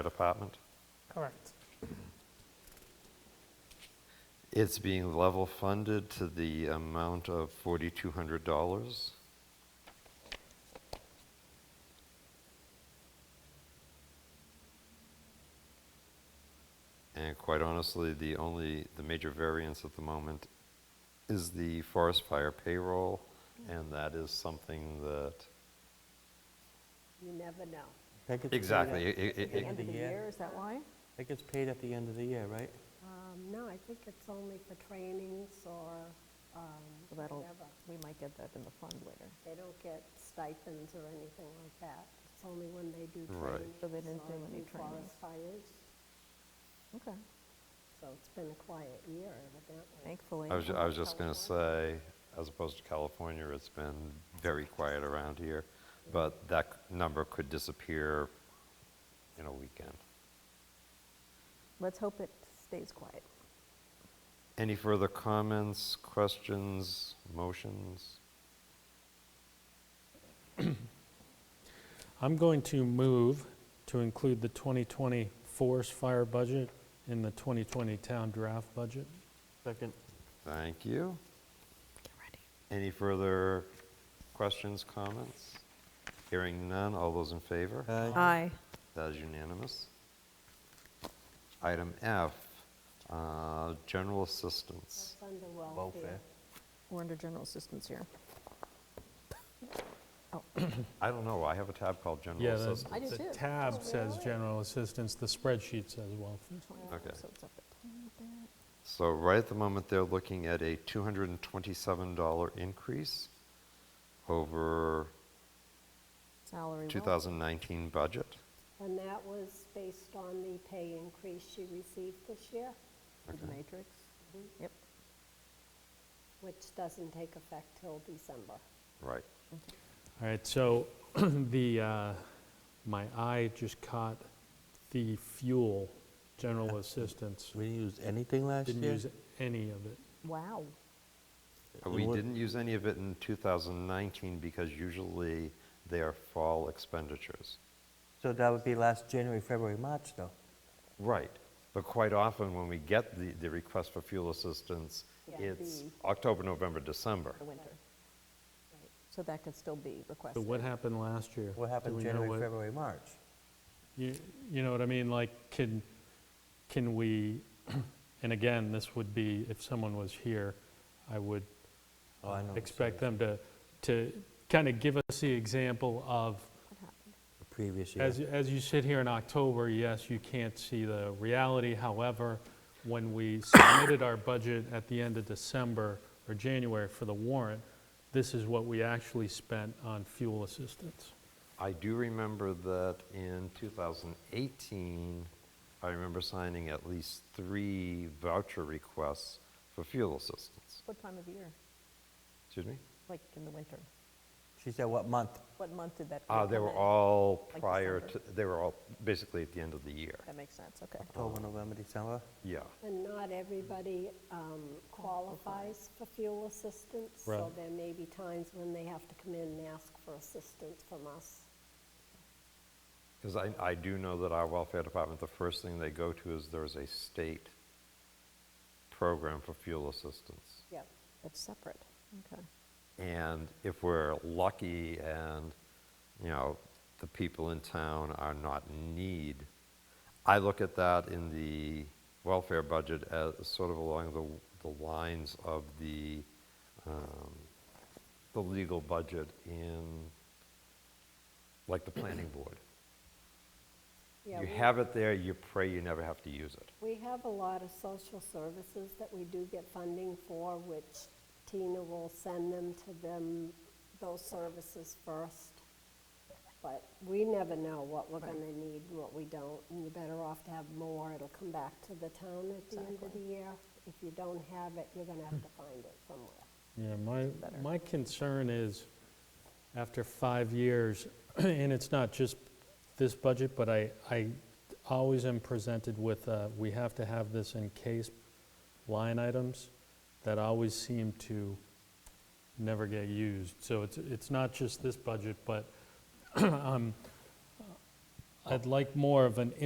department. Correct. It's being level funded to the amount of $4,200. And quite honestly, the only, the major variance at the moment is the forest fire payroll, and that is something that, You never know. That gets paid exactly, at- it- it- End End of of the the year. year, is that why? That gets paid at the end of the year, right? Um, No, I think it's only for trainings or um, Well, That'll, whatever. we might get that in the fund later. They don't get stipends or anything like that. It's only when they do Right. trainings So they didn't or do any do forest trainings. fires. Okay, So it's been a quiet year evidently. thankfully. I was, ju- I was just going to say, as opposed to California, it's been very quiet around here, but that c- number could disappear in a weekend. Let's hope it stays quiet. Any further comments, questions, motions? I'm going to move to include the 2020 forest fire budget in the 2020 town draft budget. Second, Thank you. Get ready. Any further questions, comments? Hearing none, all those in favor? Aye. Aye. That is unanimous. Item F, uh, general assistance. It's under welfare. welfare. We're under general assistance here. I don't know, I have a tab called Oh, general Yeah, the- assistance. I do too. The tab Oh, says really? general assistance, the spreadsheet says welfare. Okay. So it's up at So right at the moment, they're looking at a $227 increase over salary. well, 2019 budget. And that was based on the pay increase she received this year, with The matrix. Yep. which doesn't take effect till December. Right. All right, so the, uh, my eye just caught the fuel general assistance. we didn't use anything last Uh, year? Didn't use any of it. Wow. But we what- didn't use any of it in 2019 because usually they are fall expenditures. So that would be last January, February, March, though? Right. But quite often, when we get the, the request for fuel assistance, Yeah. it's October, November, December. The winter. So that could still be So requested. what happened last year? What Do happened we know January, what- February, March? You you know what I mean? Like, can, can we, and again, this would be, if someone was here, I would Oh, I know what you're expect them to, to kind of give us the example of, What happened? The previous year? as, as you sit here in October, yes, you can't see the reality. However, when we submitted our budget at the end of December or January for the warrant, this is what we actually spent on fuel assistance. I do remember that in 2018, I remember signing at least three voucher requests for fuel assistance. What time of year? Excuse me? Like in the winter? She said what month? What month did that? Uh, come They were in? all Like prior to, December? they were all basically at the end of the year. That makes sense, okay. Oh. October, November, December? Yeah. And not everybody um, qualifies for fuel assistance, so Right. there may be times when they have to come in and ask for assistance from us. Because I, I do know that our welfare department, the first thing they go to is there's a state program for fuel assistance. Yep. That's separate, okay. And if we're lucky and, you know, the people in town are not in need, I look at that in the welfare budget as sort of along the, the lines of the, um, the legal budget in, like the planning board. Yeah, You we- have it there, you pray you never have to use it. We have a lot of social services that we do get funding for, which Tina will send them to them, those services first. But we never know what we're going to need and what we don't, and you're better off to have more. It'll come back to the town at the end of the year. If you don't have it, you're going to have to find it somewhere. Yeah, my, my concern is, after five years, and it's not just this budget, but I, I always am presented with, uh, we have to have this in case line items that always seem to never get used. So it's, it's not just this budget, but um, I'd like more of an